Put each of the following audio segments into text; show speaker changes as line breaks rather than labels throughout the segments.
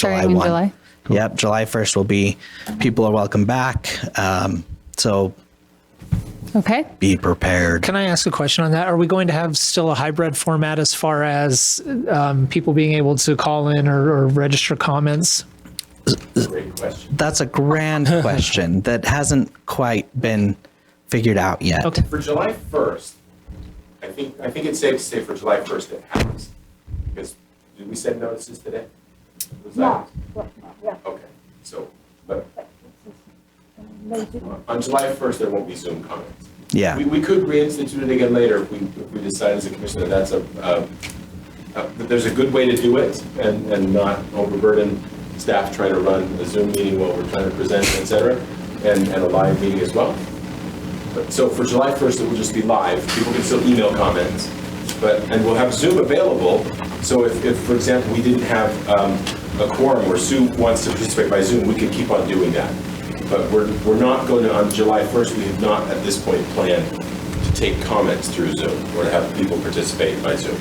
July
Starting in
1.
July?
Yep, July 1st will be, people are welcome back. Um, so
Okay.
be prepared.
Can I ask a question on that? Are we going to have still a hybrid format as far as um, people being able to call in or, or register comments?
That's a grand question that hasn't quite been figured out yet.
Okay.
For July 1st, I think, I think it's safe to say for July 1st it happens. Because, did we send notices today? Was
Yeah,
that-
yeah, yeah.
Okay, so, but
Maybe-
on July 1st, there won't be Zoom comments.
Yeah.
We, we could reinstitute it again later if we, if we decide as a commission that that's a, uh, uh, that there's a good way to do it and, and not overburden staff trying to run a Zoom meeting while we're trying to present, et cetera, and, and a live meeting as well. But, so for July 1st, it will just be live. People can still email comments, but, and we'll have Zoom available. So if, if, for example, we didn't have um, a quorum where Sue wants to participate by Zoom, we could keep on doing that. But we're, we're not going to, on July 1st, we have not at this point planned to take comments through Zoom or to have people participate by Zoom.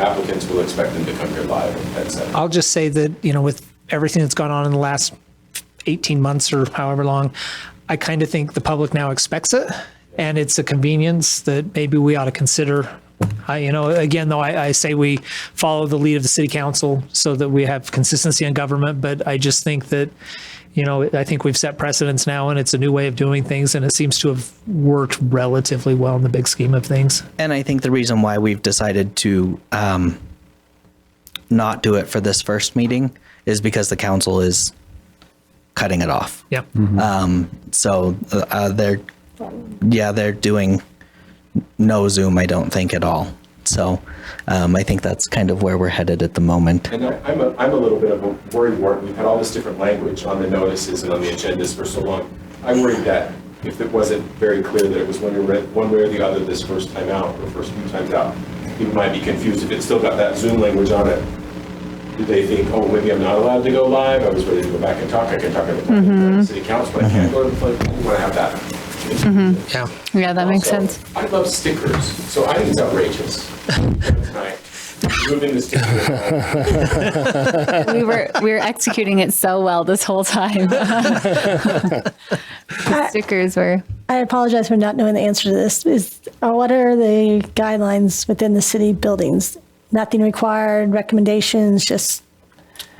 Applicants will expect them to come here live, et cetera.
I'll just say that, you know, with everything that's gone on in the last 18 months or however long, I kind of think the public now expects it. And it's a convenience that maybe we ought to consider. I, you know, again, though, I, I say we follow the lead of the city council so that we have consistency in government. But I just think that, you know, I think we've set precedents now and it's a new way of doing things. And it seems to have worked relatively well in the big scheme of things.
And I think the reason why we've decided to um, not do it for this first meeting is because the council is cutting it off.
Yeah.
So uh, uh, they're, yeah, they're doing no Zoom, I don't think, at all. So um, I think that's kind of where we're headed at the moment.
And I- I'm a, I'm a little bit of a worry, Warren, we've had all this different language on the notices and on the agendas for so long. I worried that if it wasn't very clear that it was one way, one way or the other this first time out, or first few times out, people might be confused if it's still got that Zoom language on it. Did they think, oh, maybe I'm not allowed to go live, I was ready to go back and talk, I can talk at the
Mm-hmm.
planning board, city council, but I can't go to the planning, board. I want to have that.
Yeah.
Yeah, that makes
Also,
sense.
I love stickers, so I think it's outrageous. Tonight, Moving the sticker. around.
We were we were executing it so well this whole time. The stickers were
I apologize for not knowing the answer to this. Is, uh, what are the guidelines within the city buildings? Nothing required, recommendations, just,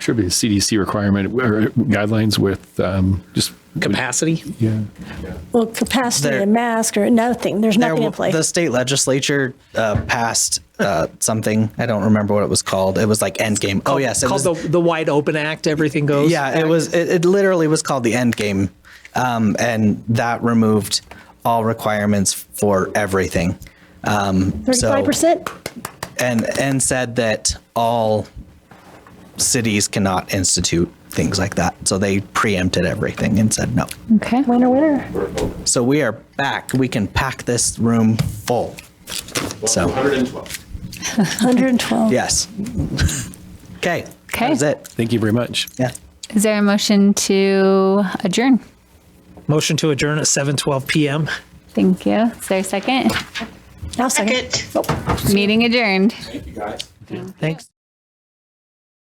Should be a CDC requirement or guidelines with um, just,
Capacity.
yeah.
well, capacity
There-
and mask or nothing. There's
There
nothing in
w-
place.
The state legislature uh, passed uh, something. I don't remember what it was called. It was like Endgame. Oh yes, it
called
was,
the, the Wide Open Act, everything goes.
yeah, it was. It, it literally was called the Endgame, um, and that removed all requirements for everything. Um,
Thirty-five
so
percent?
and and said that all cities cannot institute things like that. So they preempted everything and said no.
okay.
Winner, winner.
So we are back. We can pack this room full. So-
112.
Hundred and twelve.
Yes. Okay.
Okay.
That's it.
Thank you very much.
Yeah.
Is there a motion to adjourn?
Motion to adjourn at 7:12 p.m.
Thank you. Is there a second?
I'll second.
Second.
Meeting adjourned.
Thank you, guys.
Thanks.